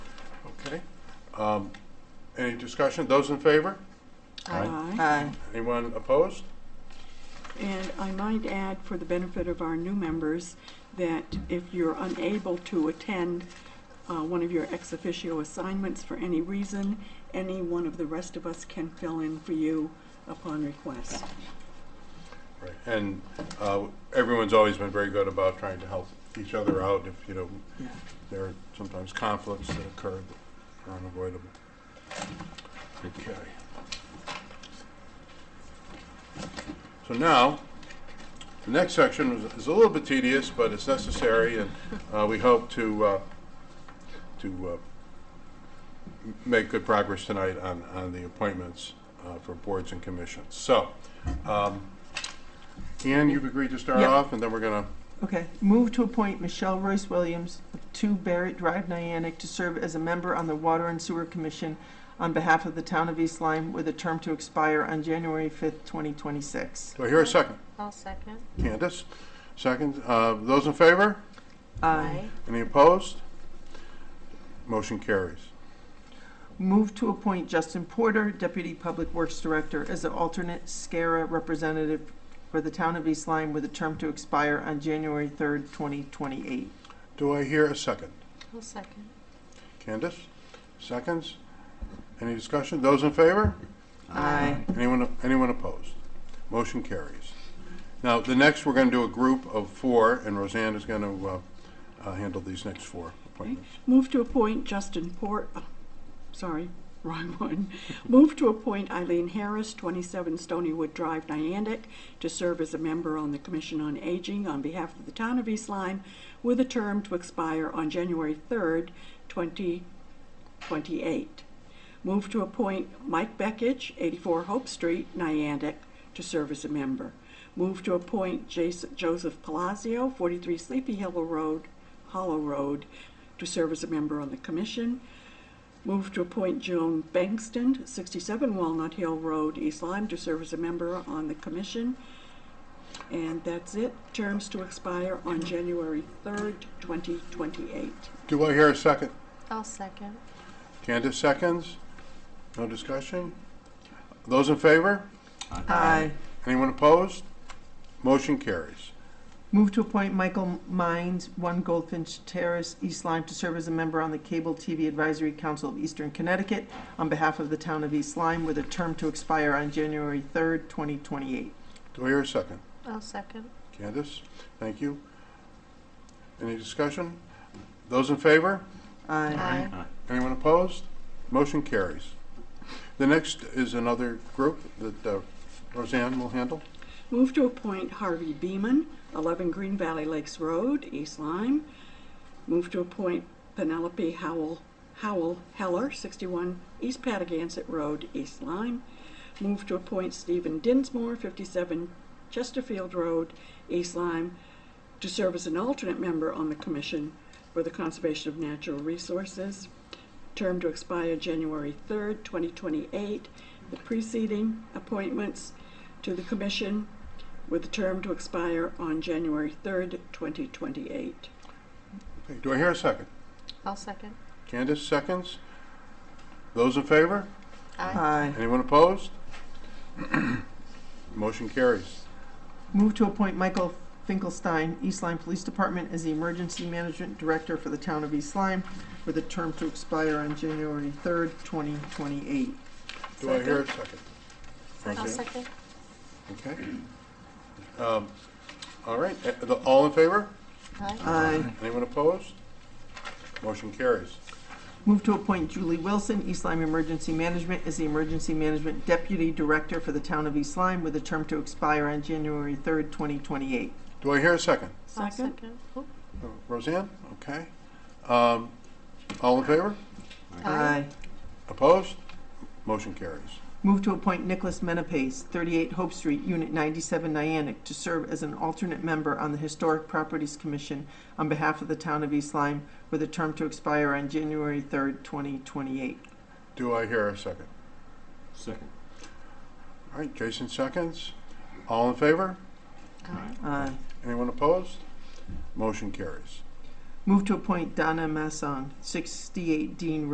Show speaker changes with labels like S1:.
S1: Okay. Um, Any discussion? Those in favor?
S2: Aye.
S3: Aye.
S1: Anyone opposed?
S2: Uh, And I might add, for the benefit of our new members, that if you're unable to attend uh, one of your ex officio assignments for any reason, any one of the rest of us can fill in for you upon request.
S1: Right. And uh, everyone's always been very good about trying to help each other out if, you know,
S2: Yeah.
S1: there are sometimes conflicts that occur that are unavoidable. Okay. So now, the next section is- is a little bit tedious, but it's necessary, and uh, we hope to, uh, to uh, m- make good progress tonight on, on the appointments uh, for boards and commissions. So, um, Ann, you've agreed to start
S3: Yeah.
S1: off, and then we're gonna,
S3: Okay, move to appoint Michelle Royce Williams of 2 Barrett Drive, Niantic, to serve as a member on the Water and Sewer Commission on behalf of the town of East Lyme, with a term to expire on January 5th, 2026.
S1: do I hear a second?
S4: I'll second.
S1: Candace, second. Uh, Those in favor?
S3: Aye.
S1: Any opposed? Motion carries.
S3: Move to appoint Justin Porter, Deputy Public Works Director, as an alternate SCARA representative for the town of East Lyme, with a term to expire on January 3rd, 2028.
S1: Do I hear a second?
S4: I'll second.
S1: Candace, seconds. Any discussion? Those in favor?
S3: Aye.
S1: Anyone, anyone opposed? Motion carries. Now, the next, we're going to do a group of four, and Roseanne is going to handle these next four appointments.
S2: Move to appoint Justin Port, uh, sorry, wrong one. Move to appoint Eileen Harris, 27 Stonywood Drive, Niantic, to serve as a member on the Commission on Aging on behalf of the town of East Lyme, with a term to expire on January 3rd, 2028. Move to appoint Mike Beckich, 84 Hope Street, Niantic, to serve as a member. Move to appoint Jas- Joseph Palazzo, 43 Sleepy Hill Road, Hollow Road, to serve as a member on the commission. Move to appoint Joan Bankston, 67 Walnut Hill Road, East Lyme, to serve as a member on the commission. And that's it. Terms to expire on January 3rd, 2028.
S1: Do I hear a second?
S4: I'll second.
S1: Candace, seconds. No discussion? Those in favor?
S3: Aye.
S1: Anyone opposed? Motion carries.
S3: Move to appoint Michael Mines, One Goldfinch Terrace, East Lyme, to serve as a member on the Cable TV Advisory Council of Eastern Connecticut on behalf of the town of East Lyme, with a term to expire on January 3rd, 2028.
S1: Do I hear a second?
S4: I'll second.
S1: Candace, thank you. Any discussion? Those in favor?
S3: Aye.
S1: Anyone opposed? Motion carries. The next is another group that uh, Roseanne will handle.
S2: Move to appoint Harvey Beeman, 11 Green Valley Lakes Road, East Lyme. Move to appoint Penelope Howell, Howell Heller, 61 East Patagonic Road, East Lyme. Move to appoint Stephen Dinsmore, 57 Chesterfield Road, East Lyme, to serve as an alternate member on the Commission for the Conservation of Natural Resources. Term to expire January 3rd, 2028. The preceding appointments to the Commission with the term to expire on January 3rd, 2028.
S1: Okay, Do I hear a second?
S4: I'll second.
S1: Candace, seconds. Those in favor?
S4: Aye.
S3: Aye.
S1: Anyone opposed? Motion carries.
S3: Move to appoint Michael Finkelstein, East Lyme Police Department, as the Emergency Management Director for the town of East Lyme, with a term to expire on January 3rd, 2028.
S1: Do I hear a second?
S4: I'll
S1: Roseanne?
S4: second.
S1: Okay. Um, All right, Uh, the- all in favor?
S4: Aye.
S3: Aye.
S1: Anyone opposed? Motion carries.
S3: Move to appoint Julie Wilson, East Lyme Emergency Management, as the Emergency Management Deputy Director for the Town of East Lyme, with a term to expire on January 3rd, 2028.
S1: Do I hear a second?
S4: I'll
S2: Second?
S4: Oop.
S1: Roseanne? Okay. Um, All in favor?
S4: Aye.
S1: Opposed? Motion carries.
S3: Move to appoint Nicholas Menapace, 38 Hope Street, Unit 97, Niantic, to serve as an alternate member on the Historic Properties Commission on behalf of the Town of East Lyme, with a term to expire on January 3rd, 2028.
S1: Do I hear a second?
S5: Second.
S1: All right, Jason seconds. All in favor?
S4: Aye.
S3: Aye.
S1: Anyone opposed? Motion carries.
S3: Move to appoint Donna Masson, 68 Dean